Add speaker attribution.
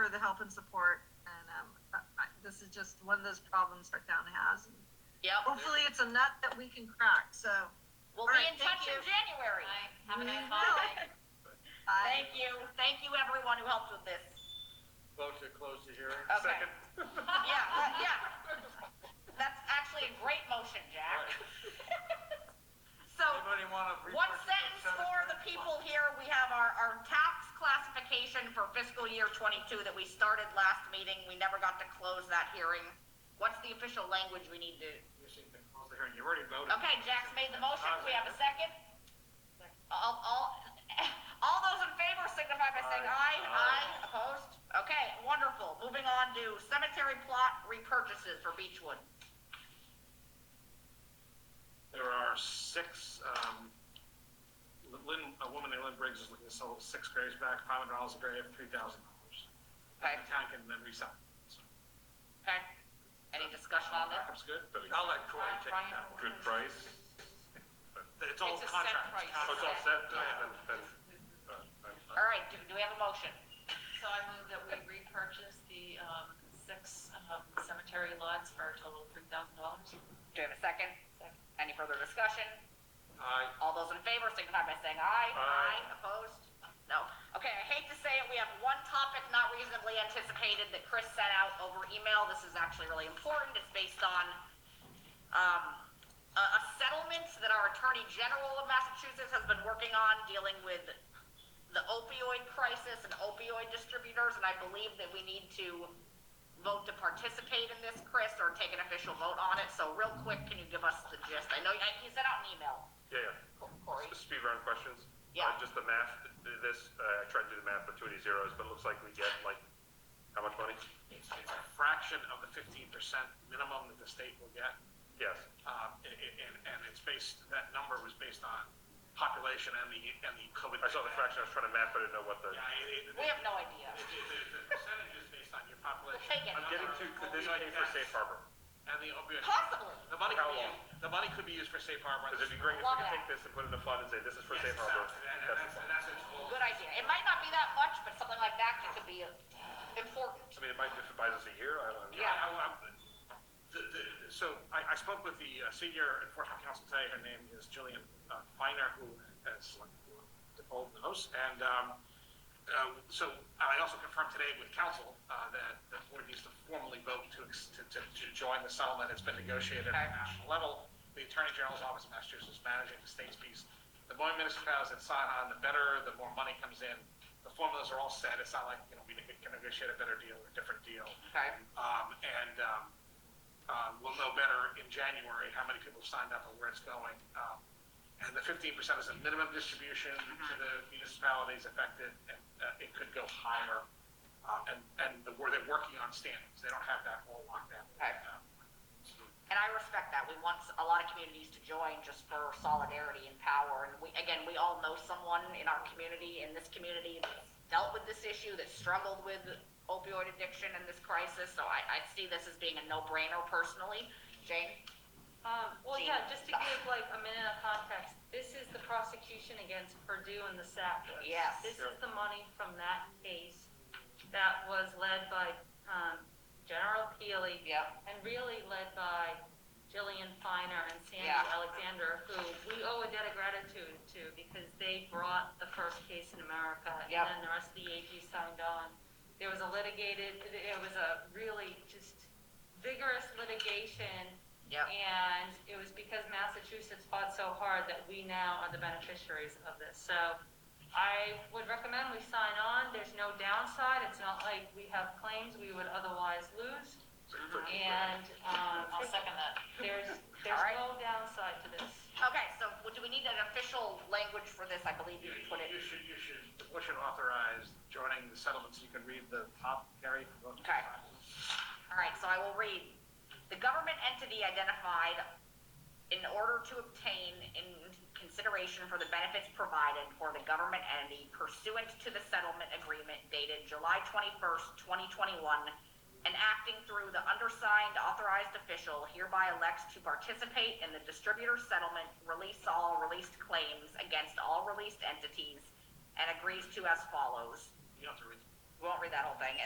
Speaker 1: the help and support. And um, I, I- this is just one of those problems our town has.
Speaker 2: Yep.
Speaker 1: Hopefully, it's a nut that we can crack. So
Speaker 2: We'll
Speaker 1: All
Speaker 2: be
Speaker 1: right,
Speaker 2: in
Speaker 1: thank
Speaker 2: touch in
Speaker 1: you.
Speaker 2: January.
Speaker 3: Right, have a nice
Speaker 1: Mhm.
Speaker 3: holiday.
Speaker 1: I,
Speaker 2: Thank you. Thank you, everyone who helped with this.
Speaker 4: Vote to close the hearing.
Speaker 2: Okay.
Speaker 4: Second.
Speaker 2: Yeah, uh, yeah. That's actually a great motion, Jack. So,
Speaker 4: Anybody want to?
Speaker 2: one sentence for the people here, we have our, our tax classification for fiscal year twenty-two that we started last meeting. We never got to close that hearing. What's the official language we need to?
Speaker 4: You should close the hearing. You already voted.
Speaker 2: Okay, Jack's made the motion. Do we have a second? All, all, all those in favor signify by saying aye.
Speaker 4: Aye.
Speaker 2: Aye, opposed? Okay, wonderful. Moving on to cemetery plot repurchases for Beechwood.
Speaker 4: There are six, um, Lynn, a woman named Lynn Briggs is looking to sell six graves back, five hundred dollars a grave, three thousand dollars.
Speaker 2: Okay.
Speaker 4: The town can then resell. So,
Speaker 2: Okay? Any discussion on this?
Speaker 4: That's good.
Speaker 5: But
Speaker 4: I'll let Corey take
Speaker 3: Brian-
Speaker 4: that one.
Speaker 5: Good price?
Speaker 4: It's all
Speaker 3: It's a set
Speaker 4: contract.
Speaker 3: price.
Speaker 5: Oh, it's all set? Oh, yeah, then- then, uh, uh,
Speaker 2: All right, do, do we have a motion?
Speaker 3: So I move that we repurchase the, um, six, um, cemetery lots for a total of three thousand dollars.
Speaker 2: Do we have a second? Any further discussion?
Speaker 4: Aye.
Speaker 2: All those in favor signify by saying aye.
Speaker 4: Aye.
Speaker 2: Opposed? No. Okay, I hate to say it, we have one topic not reasonably anticipated that Chris sent out over email. This is actually really important. It's based on, um, a, a settlement that our Attorney General of Massachusetts has been working on dealing with the opioid crisis and opioid distributors, and I believe that we need to vote to participate in this, Chris, or take an official vote on it. So real quick, can you give us the gist? I know, I, he sent out an email.
Speaker 5: Yeah, yeah.
Speaker 2: Corey.
Speaker 5: Just Speed round questions.
Speaker 2: Yeah.
Speaker 5: Uh, Just the math, th- this, uh, I tried to do the math with too many zeros, but it looks like we get like, how much money?
Speaker 4: It's it's a fraction of the fifteen percent minimum that the state will get.
Speaker 5: Yes,
Speaker 4: Um, and, and, and it's based, that number was based on population and the, and the COVID.
Speaker 5: I saw the fraction, I was trying to map, but I didn't know what the,
Speaker 4: Yeah, it, it,
Speaker 2: We have no idea.
Speaker 4: it- it- the percentage is based on your population.
Speaker 2: We'll take it.
Speaker 5: I'm getting to, could this pay for safe harbor?
Speaker 4: And the opioid.
Speaker 2: Possibly.
Speaker 4: The money could be,
Speaker 5: How
Speaker 4: the money could be used for safe harbor.
Speaker 5: Because if you bring, if we can take this and put it in a fund and say, this is for
Speaker 4: Yes,
Speaker 5: safe harbor,
Speaker 4: exactly. And- and
Speaker 5: that's,
Speaker 4: that's, and that's what's called.
Speaker 2: Good idea. It might not be that much, but something like that could- could be uh, important.
Speaker 5: I mean, it might, if it buys us a year, I don't know.
Speaker 2: Yeah.
Speaker 4: I- I- I- the- the- So I, I spoke with the uh, senior enforcement counsel today. Her name is Jillian uh, Feiner, who has like the old nose. And um, uh, so I also confirmed today with counsel uh, that the board needs to formally vote to, ex- to, to, to join the settlement. It's been negotiated at a national level. The Attorney General's Office of Massachusetts is managing the state's piece. The more municipalities that sign on, the better, the more money comes in. The formulas are all set. It's not like, you know, we can negotiate a better deal or a different deal.
Speaker 2: Okay.
Speaker 4: Um, and, um, uh, we'll know better in January how many people have signed up and where it's going. Um, and the fifteen percent is a minimum distribution to the
Speaker 2: Mm-hmm.
Speaker 4: municipalities affected, and, uh, it could go higher. Uh, and, and the, where they're working on standings, they don't have that whole lockdown.
Speaker 2: Okay. And I respect that. We want a lot of communities to join just for solidarity and power. And we, again, we all know someone in our community, in this community, that's dealt with this issue, that struggled with opioid addiction and this crisis. So I, I see this as being a no-brainer personally. Jane?
Speaker 3: Um, well, yeah, just to give like a minute of context, this is the prosecution against Purdue and the SAP.
Speaker 2: Yes.
Speaker 3: This is the money from that case that was led by, um, General Keely.
Speaker 2: Yep.
Speaker 3: And really led by Jillian Finer and Sandy
Speaker 2: Yeah.
Speaker 3: Alexander, who we owe a debt of gratitude to because they brought the first case in America.
Speaker 2: Yep.
Speaker 3: And then the rest of the AG signed on. There was a litigated, it was a really just vigorous litigation.
Speaker 2: Yep.
Speaker 3: And it was because Massachusetts fought so hard that we now are the beneficiaries of this. So I would recommend we sign on. There's no downside. It's not like we have claims we would otherwise lose.
Speaker 2: Mm-hmm.
Speaker 3: And, um,
Speaker 2: second that.
Speaker 3: there's,
Speaker 2: All
Speaker 3: there's
Speaker 2: right.
Speaker 3: no downside to this.
Speaker 2: Okay, so do we need an official language for this? I believe you
Speaker 4: You,
Speaker 2: put it.
Speaker 4: you should, you should, the board should authorize joining the settlements, you can read the top, Gary. from the-
Speaker 2: Okay. All right, so I will read. The government entity identified in order to obtain in consideration for the benefits provided for the government entity pursuant to the settlement agreement dated July 21st, 2021, and acting through the undersigned authorized official hereby elects to participate in the distributor settlement, release all released claims against all released entities, and agrees to as follows.
Speaker 4: You don't have to read.
Speaker 2: We won't read that whole thing.